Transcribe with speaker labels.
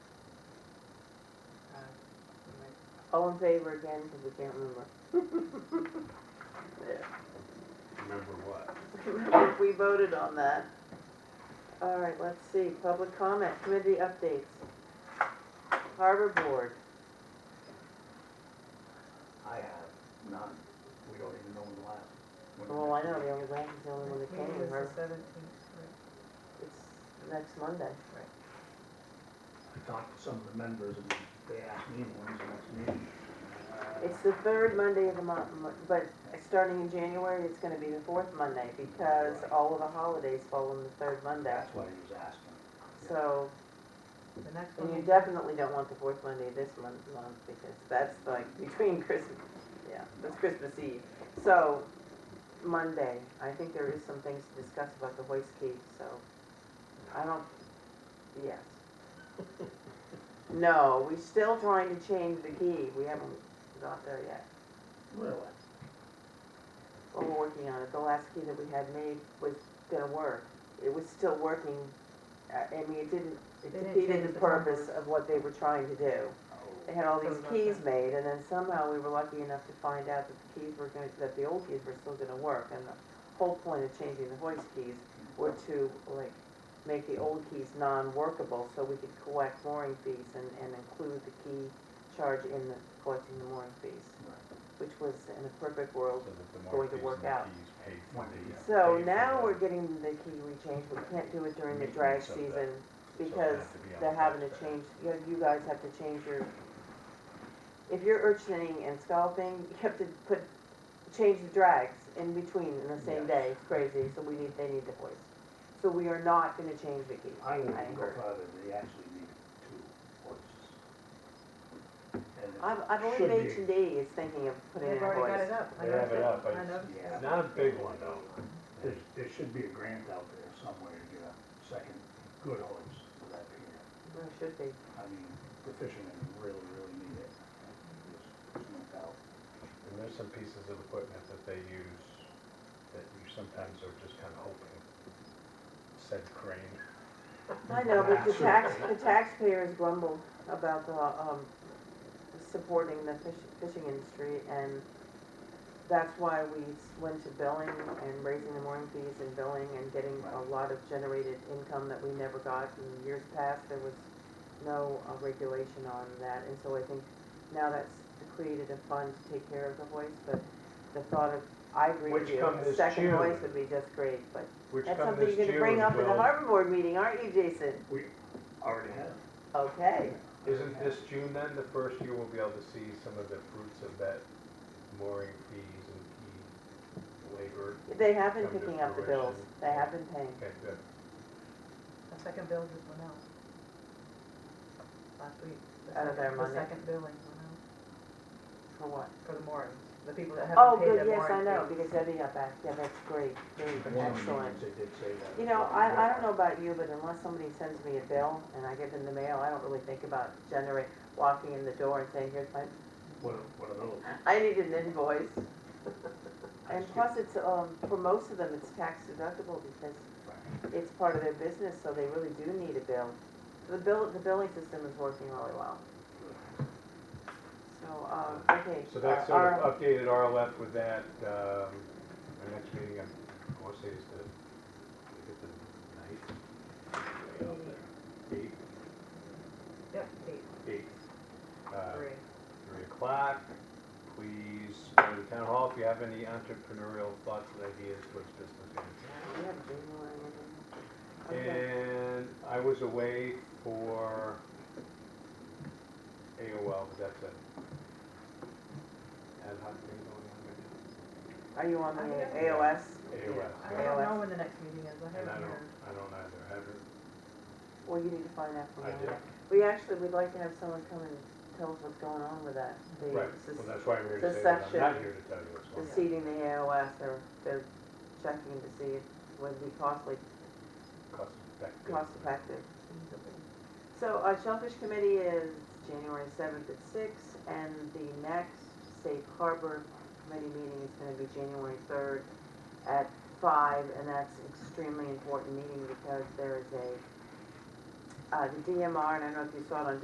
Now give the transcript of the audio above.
Speaker 1: All in favor again, because we can't remember.
Speaker 2: Remember what?
Speaker 1: Remember, we voted on that. All right, let's see, public comment, committee updates. Harbor Board,
Speaker 3: I have none. We don't even know when the last. when the
Speaker 1: oh, I
Speaker 3: next
Speaker 1: know,
Speaker 3: meeting-
Speaker 1: the only way is the only one that
Speaker 4: Meeting
Speaker 1: came,
Speaker 4: is the
Speaker 1: Harbor-
Speaker 4: seventeenth, right?
Speaker 1: it's next Monday.
Speaker 3: I talked to some of the members and they asked me when's the next meeting.
Speaker 1: It's the third Monday of the month, mo- but starting in January, it's gonna be the fourth Monday, because all of the holidays fall on the third Monday.
Speaker 3: That's what he was asking.
Speaker 1: So,
Speaker 4: The next
Speaker 1: and
Speaker 4: one.
Speaker 1: you
Speaker 4: is-
Speaker 1: definitely don't want the fourth Monday this month, month, because that's like between Christmas, yeah, that's Christmas Eve. So, Monday, I think there is some things to discuss about the hoist key, so, I don't, yes. No, we're still trying to change the key, we haven't got there yet.
Speaker 3: Really?
Speaker 1: Well, we're working on it. The last key that we had made was gonna work. It was still working. I I mean, it didn't, it
Speaker 4: They didn't
Speaker 1: defeated
Speaker 4: change
Speaker 1: the
Speaker 4: the
Speaker 1: purpose
Speaker 4: numbers.
Speaker 1: of what they were trying to do.
Speaker 3: Oh.
Speaker 1: They had all these
Speaker 4: Something like
Speaker 1: keys
Speaker 4: that.
Speaker 1: made, and then somehow we were lucky enough to find out that the keys were gonna, that the old keys were still gonna work. And the whole point of changing the hoist keys were to, like, make the old keys non-workable so we could collect mooring fees and, and include the key charge in the, collecting the mooring fees,
Speaker 3: Right.
Speaker 1: which was, in a perfect world,
Speaker 2: So that the
Speaker 1: Going to
Speaker 2: marquees
Speaker 1: work
Speaker 2: and the
Speaker 1: out.
Speaker 2: keys pay for the, uh,
Speaker 1: So
Speaker 2: pay for
Speaker 1: now
Speaker 2: the-
Speaker 1: we're getting the key rechange, we can't do it during the drag
Speaker 2: Maintenance of that.
Speaker 1: season
Speaker 2: it
Speaker 1: because
Speaker 2: has to be on
Speaker 1: they're
Speaker 2: the
Speaker 1: having to
Speaker 2: tax bill.
Speaker 1: change, you, you guys have to change your, if you're urchining and scalping, you have to put, change the drags in between in the same
Speaker 3: Yes.
Speaker 1: day, it's crazy, so we need, they need the voice. So we are not gonna change the key.
Speaker 3: I wouldn't even go
Speaker 1: heard.
Speaker 3: farther, they actually need two hoists. And it
Speaker 1: I've, I've only
Speaker 3: should be-
Speaker 1: H and D is thinking of putting in
Speaker 4: They've
Speaker 1: a
Speaker 4: already got
Speaker 1: voice.
Speaker 4: it up. I
Speaker 2: They have
Speaker 4: noticed
Speaker 2: it up,
Speaker 4: I
Speaker 2: but-
Speaker 4: noticed it.
Speaker 3: Yeah.
Speaker 2: Not a big one though.
Speaker 3: There, there should be a grant out there somewhere to get a second good hoist for that pier.
Speaker 1: There should be.
Speaker 3: I mean, the fishermen really, really need it. There's- there's no doubt.
Speaker 2: And there's some pieces of equipment that they use that you sometimes are just kind of hoping said crane.
Speaker 1: I know, but the tax, the taxpayers grumble about the, um, supporting the fish, fishing industry, and that's why we s- went to billing and raising the mooring fees and billing and getting a
Speaker 3: Right.
Speaker 1: lot of generated income that we never got in years past, there was no uh, regulation on that, and so I think now that's created a fund to take care of the hoist, but the thought of, I agree with
Speaker 2: Which
Speaker 1: you,
Speaker 2: come
Speaker 1: a
Speaker 2: this
Speaker 1: second
Speaker 2: June.
Speaker 1: hoist would be just great, but
Speaker 2: Which
Speaker 1: that's
Speaker 2: come
Speaker 1: something
Speaker 2: this
Speaker 1: you're gonna bring
Speaker 2: June
Speaker 1: up in the
Speaker 2: will-
Speaker 1: harbor board meeting, aren't you, Jason?
Speaker 3: We already have.
Speaker 1: Okay,
Speaker 2: Isn't this June then, the first year we'll be able to see some of the fruits of that mooring fees and key labor?
Speaker 1: they have been
Speaker 2: Come to
Speaker 1: picking up the bills,
Speaker 2: fruition.
Speaker 1: they have been paying.
Speaker 2: Okay, good.
Speaker 4: The second bill just went out. Last week. The
Speaker 1: Out of
Speaker 4: second-
Speaker 1: their money.
Speaker 4: The second billing went out
Speaker 1: For what?
Speaker 4: for the moorings, the people that
Speaker 1: Oh,
Speaker 4: haven't paid
Speaker 1: good,
Speaker 4: their mooring.
Speaker 1: yes, I know,
Speaker 4: fees.
Speaker 1: because Debbie got back, yeah, that's great, great,
Speaker 3: One of the
Speaker 1: excellent.
Speaker 3: meetings They did say that.
Speaker 1: You know, I, I don't know about you, but unless somebody sends me a bill and I get it in the mail, I don't really think about generate, walking in the door and saying, here's my,
Speaker 3: What, what are those?
Speaker 1: I need an invoice.
Speaker 3: I
Speaker 1: And
Speaker 3: see.
Speaker 1: plus it's, um, for most of them, it's tax deductible because it's part of their business, so they really do need a bill. The bill, the billing system is working really well. So, um, okay. uh,
Speaker 2: So that's
Speaker 1: our-
Speaker 2: sort of updated RLF with that, um, our next meeting, I'm- I want to say is the, is it the ninth? Way out there. Eighth,
Speaker 4: Yep, eight,
Speaker 2: eighth, uh,
Speaker 4: three.
Speaker 2: three o'clock. Please go to the town hall if you have any entrepreneurial thoughts and ideas towards business. owners.
Speaker 1: We have January, I think.
Speaker 2: Eh.
Speaker 1: Okay.
Speaker 2: And I was away for AOL, but that's it. Ad hoc thing going on right now.
Speaker 1: Are you on the
Speaker 4: Yeah.
Speaker 1: AOS?
Speaker 2: AOS.
Speaker 4: I
Speaker 1: Yeah.
Speaker 2: yeah.
Speaker 4: don't know when the next meeting is, I
Speaker 2: And I
Speaker 4: haven't
Speaker 2: don't,
Speaker 4: heard.
Speaker 2: I don't either, I haven't,
Speaker 1: Well, you need to find out from
Speaker 2: I
Speaker 1: them.
Speaker 2: did,
Speaker 1: We actually, would like to have someone come and tell us what's going on with that. The
Speaker 2: right,
Speaker 1: sus-
Speaker 2: well, that's why I'm here
Speaker 1: the
Speaker 2: to say that, I'm not
Speaker 1: section-
Speaker 2: here to tell you what's
Speaker 1: The
Speaker 2: going on.
Speaker 1: seating the AOS, they're, they're checking to see if, would be costly,
Speaker 2: Cost effective.
Speaker 1: cost effective. So, uh, Shellfish Committee is January seventh at six, and the next Safe Harbor Committee meeting is gonna be January third at five, and that's extremely important meeting because there is a, uh, the DMR, and I don't know if you saw it on